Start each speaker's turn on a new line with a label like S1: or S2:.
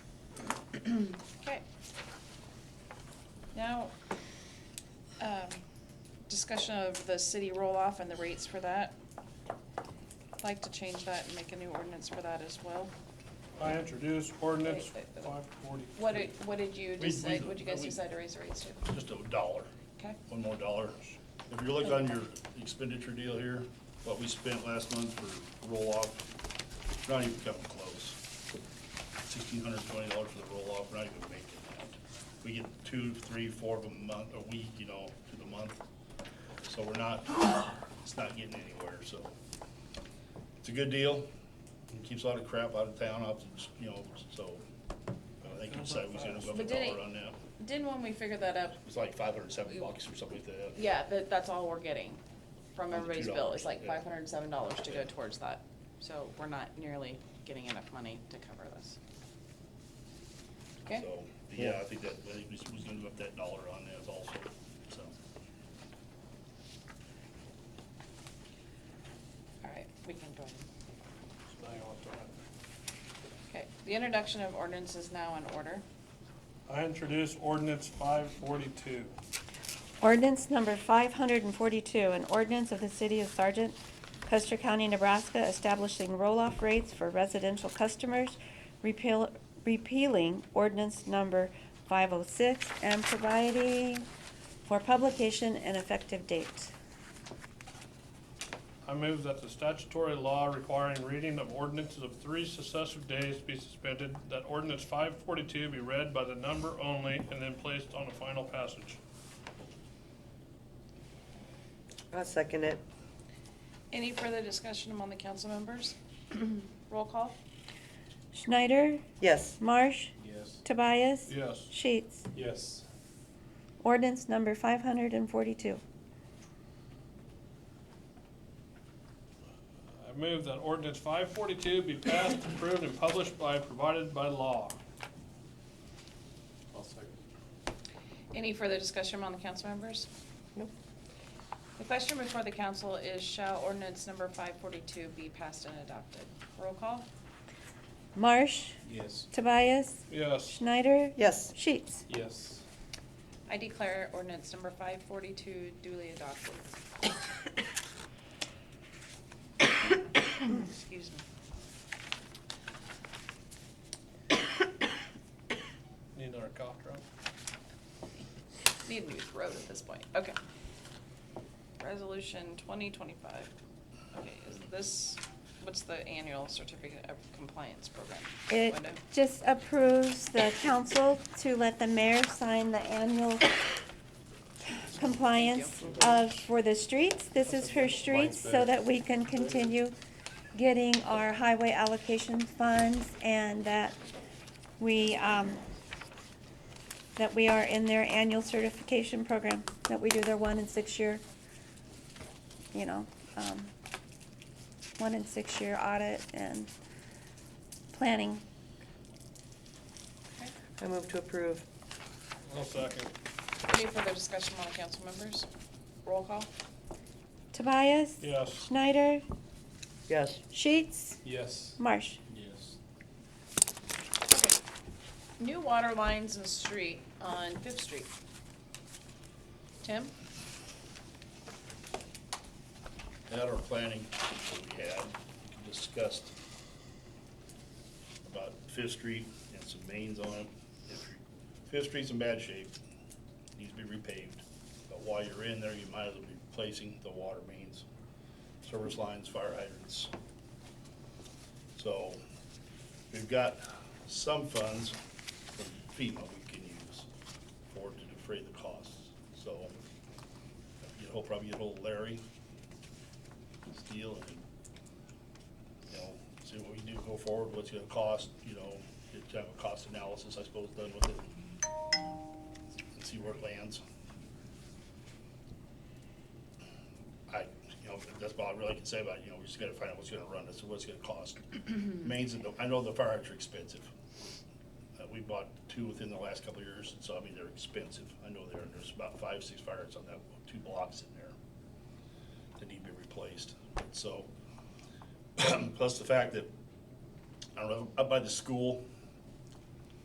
S1: Okay. Now, um, discussion of the city roll-off and the rates for that. I'd like to change that and make a new ordinance for that as well.
S2: I introduced ordinance
S1: Wait, wait, wait.
S2: five forty.
S1: What did, what did you
S3: We- we-
S1: decide, what did you guys
S3: we-
S1: decide to raise the rates to?
S3: just a dollar,
S1: Okay,
S3: one more dollar. If you look on your expenditure deal here, what we spent last month for roll-off, not even coming close. Sixteen hundred twenty dollars for the roll-off, we're not even making that. We get two, three, four of them a month, a week, you know, to the month. So we're not, it's not getting anywhere, so. It's a good deal. It Keeps a lot of crap out of town, out of- you know, so I think we decided we should have a
S1: But did it-
S3: dollar on that.
S1: didn't when we figured that up,
S3: It's like five hundred and seven bucks or something like that.
S1: yeah, that, that's all we're getting from
S3: the
S1: everybody's
S3: $2,
S1: bill, it's like
S3: yeah.
S1: five hundred and seven dollars to go
S3: Yeah.
S1: towards that. So we're not nearly getting enough money to cover this. Okay?
S3: So, but yeah, I think that, I think we s- was gonna up that dollar on that also, so.
S1: All right, we can go ahead. Okay, the introduction of ordinance is now in order.
S2: I introduced ordinance five forty-two.
S4: Ordinance number 542, an ordinance of the city of Sargent, Custer County, Nebraska, establishing roll-off rates for residential customers, repeal- repealing ordinance number 506, and providing for publication and effective date.
S2: I move that the statutory law requiring reading of ordinances of three successive days be suspended, that ordinance five forty-two be read by the number only and then placed on a final passage.
S5: I'll second it.
S1: Any further discussion among the council members? Roll call?
S4: Schneider,
S5: Yes,
S4: Marsh,
S6: Yes.
S4: Tobias.
S2: Yes.
S4: Sheets.
S6: Yes.
S4: Ordinance number 542.
S2: I move that ordinance five forty-two be passed, approved, and published by, provided by law.
S6: I'll second.
S1: Any further discussion among the council members?
S5: Nope.
S1: The question before the council is shall ordinance number five forty-two be passed and adopted? Roll call?
S4: Marsh,
S6: Yes.
S4: Tobias,
S2: Yes.
S4: Schneider.
S5: yes,
S4: Sheets.
S6: Yes.
S1: I declare ordinance number five forty-two duly adopted. Excuse me.
S2: Need another cough drop?
S1: Need a new throat at this point, okay. Resolution twenty twenty-five. Okay, is this, what's the annual certificate of compliance program?
S4: It
S1: Linda?
S4: just approves the council to let the mayor sign the annual compliance of, for the streets. This is for streets so that we can continue getting our highway allocation funds and that we, um, that we are in their annual certification program, that we do their one and six-year, you know, um, one and six-year audit and planning.
S1: Okay.
S5: I move to approve.
S2: I'll second.
S1: Any further discussion among the council members? Roll call?
S4: Tobias?
S2: Yes.
S4: Schneider?
S5: Yes,
S4: Sheets?
S6: Yes.
S4: Marsh?
S6: Yes.
S1: Okay. New water lines and street on Fifth Street. Tim?
S3: At our planning, we had discussed about Fifth Street and some mains on it. If Fifth Street's in bad shape, needs to be repaved, but while you're in there, you might as well be replacing the water mains, service lines, fire hydrants. So, we've got some funds from FEMA we can use for to defray the costs, so you will probably get old Larry, this deal and, you know, see what we do go forward, what's gonna cost, you know, get to have a cost analysis, I suppose, done with it. And see where it lands. I, you know, that's about all I really can say about it, you know, we just gotta find out what's gonna run us, and what's gonna cost. Mains, and the- I know the fire hydrants are expensive. Uh, we bought two within the last couple of years, and so, I mean, they're expensive, I know they're, and there's about five, six fire hydrants on that, two blocks in there that need to be replaced. So, plus the fact that, I don't know, up by the school,